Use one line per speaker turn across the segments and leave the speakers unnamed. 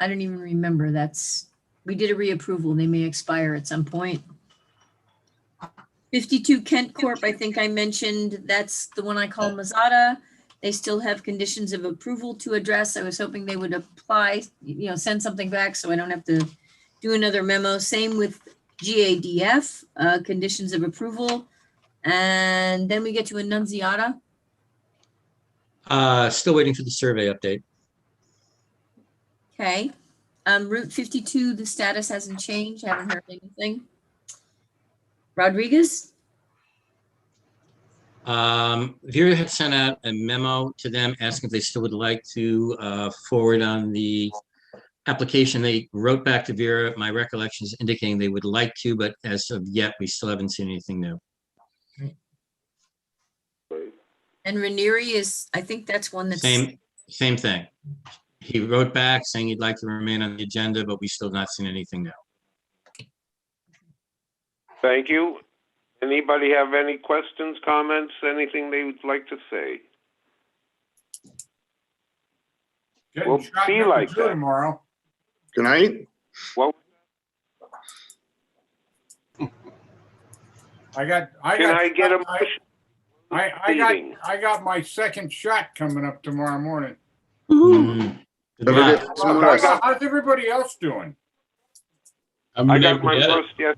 I don't even remember. That's, we did a reapproval. They may expire at some point. 52 Kent Corp., I think I mentioned, that's the one I call Mazada. They still have conditions of approval to address. I was hoping they would apply, you know, send something back so I don't have to do another memo. Same with GADF, uh, conditions of approval. And then we get to Annunziata.
Uh, still waiting for the survey update.
Okay, um, Route fifty-two, the status hasn't changed, I haven't heard anything. Rodriguez,
Um, Vera had sent out a memo to them asking if they still would like to, uh, forward on the application. They wrote back to Vera, my recollection is indicating they would like to, but as of yet, we still haven't seen anything new.
Right.
and Ranieri is, I think that's one that's,
Same, same thing. He wrote back saying he'd like to remain on the agenda, but we still have not seen anything new.
Thank you. Anybody have any questions, comments, anything they would like to say?
Getting
We'll
shot
be
in the
like
zoo
that.
Tomorrow.
Good night.
I got, I
Can
got.
I get a
I-
motion?
I, I got,
Meeting.
I got my second shot coming up tomorrow morning.
Mm. Good
Have a
luck.
good- someone else.
How's everybody else doing?
I'm
I
gonna
got
be
my
able
first yes.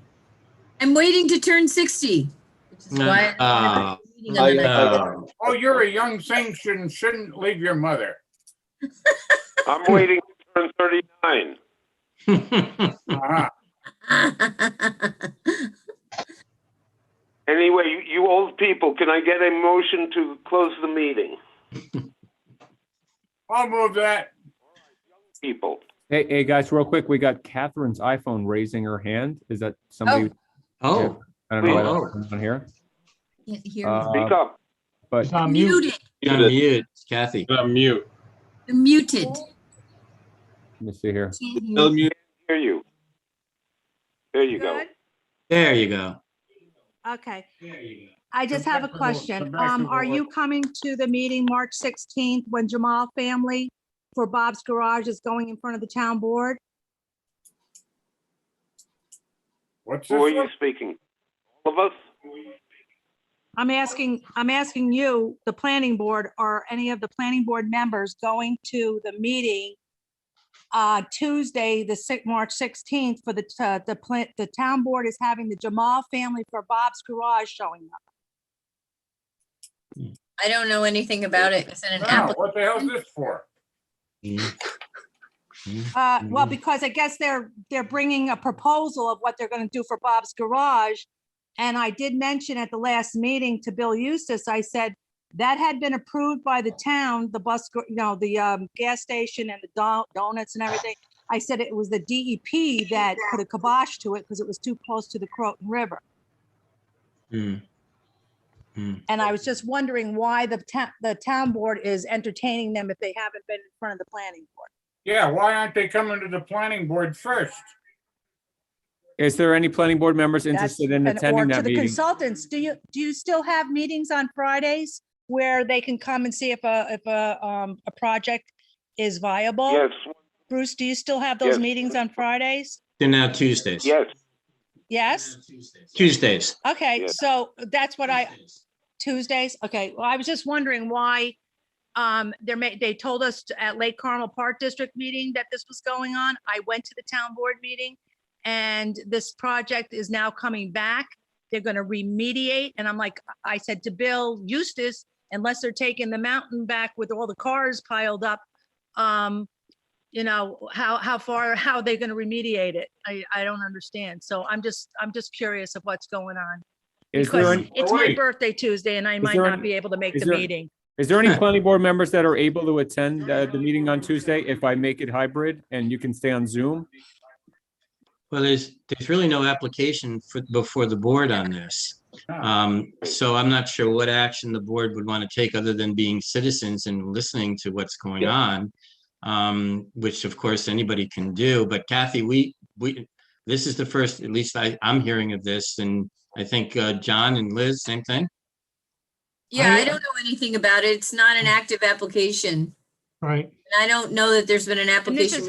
I'm waiting to turn sixty. which is
No,
why I
ah,
don't have a meeting on the night.
No.
Oh, you're a young thing, shouldn't, shouldn't leave your mother.
I'm waiting to turn 39.
Uh-huh.
Anyway, you- you old people, can I get a motion to close the meeting?
I'll move that.
People,
Hey, hey, guys, real quick, we got Catherine's iPhone raising her hand. Is that somebody?
Oh,
I don't know why
Oh.
that's on here.
Can't hear,
Uh,
speak up.
But
Ah,
to mute.
muted,
you're on mute, Kathy.
I'm mute.
muted.
let me see here.
Can't hear.
Still mute.
Hear you. There you go.
Good.
There you go.
Okay. I just have
Back
a
to the-
question.
back to
Um,
the
are you
work.
coming to the meeting March sixteenth when Jamal family for Bob's Garage is going in front of the town board?
What's this?
Who are you
one?
speaking? All of us?
I'm asking, I'm asking you, the planning board, are any of the planning board members going to the meeting uh, Tuesday, the six, March sixteenth for the, t- uh, the plant, the town board is having the Jamal family for Bob's Garage showing up.
I don't know anything about it. Is it
Oh.
an
Now,
app?
what the hell's this for?
Uh, well,
Mhm.
because I guess they're, they're bringing a proposal of what they're gonna do for Bob's Garage. And I did mention at the last meeting to Bill Eustace, I said, that had been approved by the town, the bus, gar- you know, the, um, gas station and the do- donuts and everything. I said it was the DEP that put a kibosh to it because it was too close to the Croton River.
Hmm.
And I was just wondering why the town, the town board is entertaining them if they haven't been in front of the planning board.
Yeah, why aren't they coming to the planning board first?
Is there any planning board members
That's-
interested in
and-
attending
or
that
To the
meeting?
consultants, do you, do you still have meetings on Fridays where they can come and see if a, if a, um, a project is viable?
Yes,
Bruce, do you still have
Yes.
those meetings on Fridays?
They're now Tuesdays.
yes.
Yes?
Tuesdays.
Okay,
Yes.
so that's what I, Tuesdays? Okay, well, I was just wondering why, um, there may, they told us t- at Lake Carmel Park District meeting that this was going on. I went to the town board meeting and this project is now coming back. They're gonna remediate, and I'm like, I said to Bill Eustace, unless they're taking the mountain back with all the cars piled up, um, you know, how, how far, how are they gonna remediate it? I, I don't understand. So I'm just, I'm just curious of what's going on.
Is there,
Because
any-
It's my
Wait.
birthday Tuesday and I might
there
not
any-
be able to make
is
the
there-
meeting.
is there any planning board members that are able to attend uh, the meeting on Tuesday if I make it hybrid and you can stay on Zoom?
Well, there's, there's really no application for, before the board on this. Um, so I'm not sure what action the board would want to take other than being citizens and listening to what's going on. Um, which of course anybody can do, but Kathy, we, we, this is the first, at least I, I'm hearing of this and I think, uh, John and Liz, same thing.
Yeah, I don't know anything about it. It's not an active application.
Right.
And I don't know that there's been an
And this
application.
is